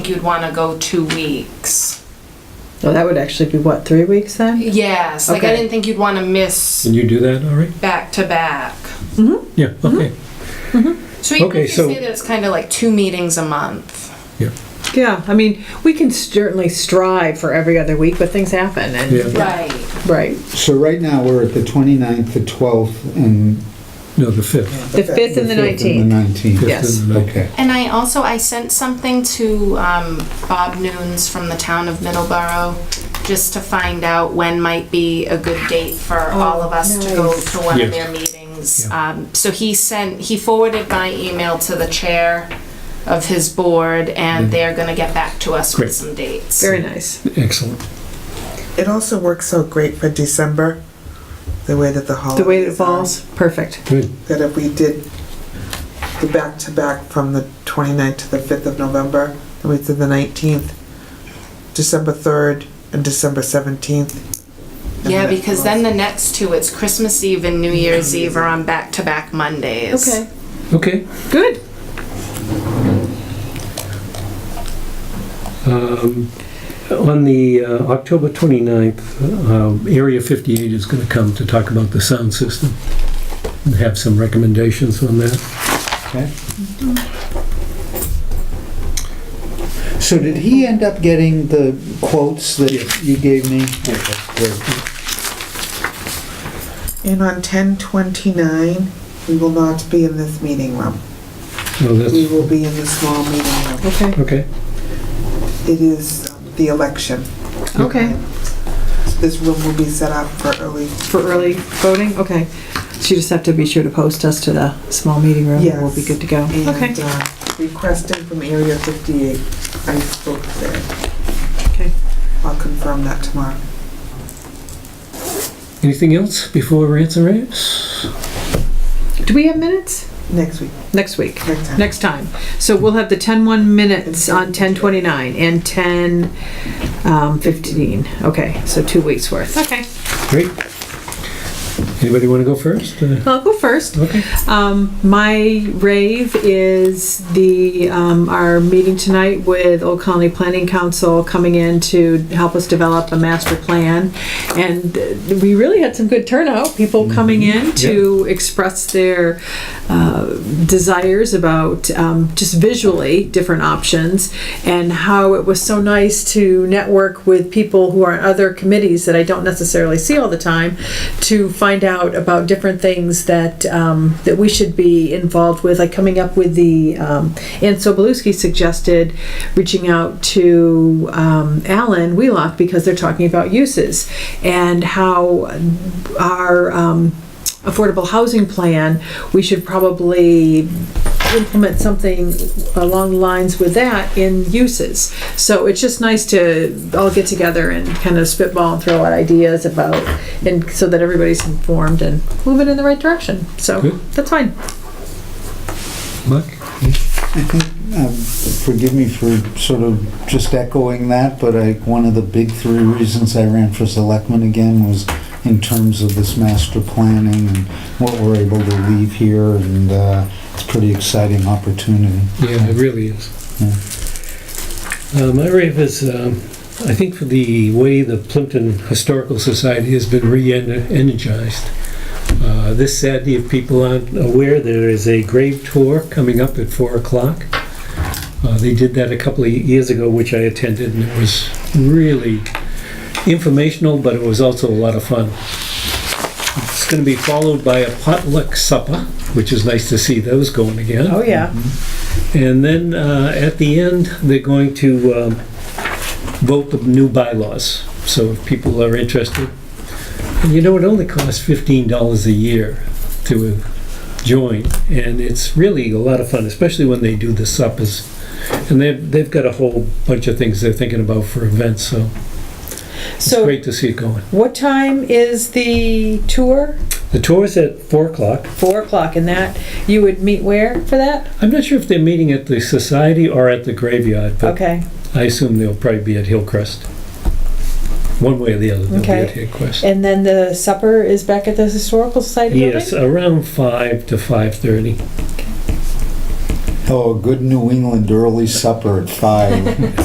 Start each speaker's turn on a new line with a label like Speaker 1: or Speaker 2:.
Speaker 1: you'd want to go two weeks.
Speaker 2: No, that would actually be what, three weeks then?
Speaker 1: Yes, like I
Speaker 2: Okay.
Speaker 1: didn't think you'd want to miss
Speaker 3: Can you do that, all right?
Speaker 1: back to back.
Speaker 3: Yeah, okay.
Speaker 1: So even
Speaker 3: Okay,
Speaker 1: if you
Speaker 3: so-
Speaker 1: say that it's kind of like two meetings a month.
Speaker 2: Yeah, I mean, we can certainly strive for every other week, but things happen and,
Speaker 3: Yeah.
Speaker 1: Right.
Speaker 2: right.
Speaker 4: So right now, we're at the 29th, the 12th, and...
Speaker 3: No, the 5th.
Speaker 2: The fifth and the
Speaker 4: fifth
Speaker 2: nineteenth.
Speaker 4: and the 19th.
Speaker 2: Yeah. Yes.
Speaker 3: uh,
Speaker 4: Okay.
Speaker 1: And I also I sent something to um, Bob Noons from the town of Middleborough just to find out when might be a good date for all of us to go
Speaker 2: nice.
Speaker 1: to one of
Speaker 3: Yeah.
Speaker 1: their meetings.
Speaker 3: Yeah.
Speaker 1: Um, so he sent he forwarded my email to the chair of his board, and they're going to get back to us
Speaker 3: Mm-hmm. Great.
Speaker 1: with some dates.
Speaker 2: Very nice.
Speaker 3: Excellent.
Speaker 5: It also works out great for December, the way that the holidays
Speaker 2: The way it
Speaker 5: are.
Speaker 2: falls, perfect.
Speaker 3: Good.
Speaker 5: That if we did the back-to-back from the 29th to the 5th of November, then we did the 19th, December 3rd, and December 17th. and
Speaker 1: Yeah,
Speaker 5: then it
Speaker 1: because then the next two, it's Christmas Eve and New Year's Eve are on back-to-back Mondays.
Speaker 3: Okay.
Speaker 2: Good.
Speaker 3: Um, On the uh, October 29th, um, Area 58 is going to come to talk about the sound system and have some recommendations on that.
Speaker 4: Okay. So did he end up getting the quotes that you gave me? Okay,
Speaker 5: falls- And on 10/29, we will not be in this meeting room.
Speaker 3: Well,
Speaker 5: We
Speaker 3: that's,
Speaker 5: will be in the small meeting room.
Speaker 2: Okay,
Speaker 3: okay.
Speaker 5: It is um, the election.
Speaker 2: okay.
Speaker 5: This room will be set up for early
Speaker 2: For early voting, okay. So you just have to be sure to post us to the small meeting room and we'll be good to go. Okay.
Speaker 5: And uh, requesting from Area 58, I spoke there.
Speaker 2: Okay.
Speaker 5: I'll confirm that tomorrow.
Speaker 3: Anything else before Ransom Rants?
Speaker 2: Do we have minutes?
Speaker 5: Next week,
Speaker 2: Next week.
Speaker 5: next time.
Speaker 2: next time. So we'll have the 10-1 minutes on 10:29 and 10:15. Okay, so two weeks worth. Okay.
Speaker 3: Great. Anybody want to go first? Uh,
Speaker 2: I'll go first.
Speaker 3: Okay.
Speaker 2: Um, my rave is the, um, our meeting tonight with Old Colony Planning Council coming in to help us develop a master plan. And uh, we really had some good turnout, people coming in to express their, uh, desires about, um, just visually different options and how it was so nice to network with people who are on other committees that I don't necessarily see all the time to find out about different things that um, that we should be involved with, like coming up with the. Um, and Sobolewski suggested reaching out to um, Alan Wheelock because they're talking about uses and how our um, affordable housing plan, we should probably implement something along the lines with that in uses. So it's just nice to all get together and kind of spitball and throw out ideas about, and so that everybody's informed and moving in the right direction. So
Speaker 3: Good.
Speaker 2: that's fine.
Speaker 3: Mark?
Speaker 4: Um, Forgive me for sort of just echoing that, but I, one of the big three reasons I ran for selectman again was in terms of this master planning and what we're able to leave here, and uh, it's a pretty exciting opportunity.
Speaker 3: Yeah, it really is. Uh, My rave is, um, I think for the way the Plimpton Historical Society has been re-energized. Uh, This Saturday, if people aren't aware, there is a grave tour coming up at 4 o'clock. Uh, They did that a couple of years ago, which I attended, and it was really informational, but it was also a lot of fun. It's going to be followed by a potluck supper, which is nice to see those going again.
Speaker 2: Oh, yeah.
Speaker 3: Mm-hmm. And then uh, at the end, they're going to um, vote the new bylaws. So if people are interested, and you know, it only costs $15 a year to join. And it's really a lot of fun, especially when they do the suppers. And they've, they've got a whole bunch of things they're thinking about for events, so it's
Speaker 2: So
Speaker 3: great to see it going.
Speaker 2: what time is the tour?
Speaker 3: The tour is at 4 o'clock.
Speaker 2: Four o'clock and that, you would meet where for that?
Speaker 3: I'm not sure if they're meeting at the Society or at the graveyard, but
Speaker 2: Okay.
Speaker 3: I assume they'll probably be at Hillcrest. One way or the other, they'll be at Hillcrest.
Speaker 2: And then the supper is back at the Historical Society
Speaker 3: Yes, around five to five thirty.
Speaker 4: Oh, a good New England early supper at five.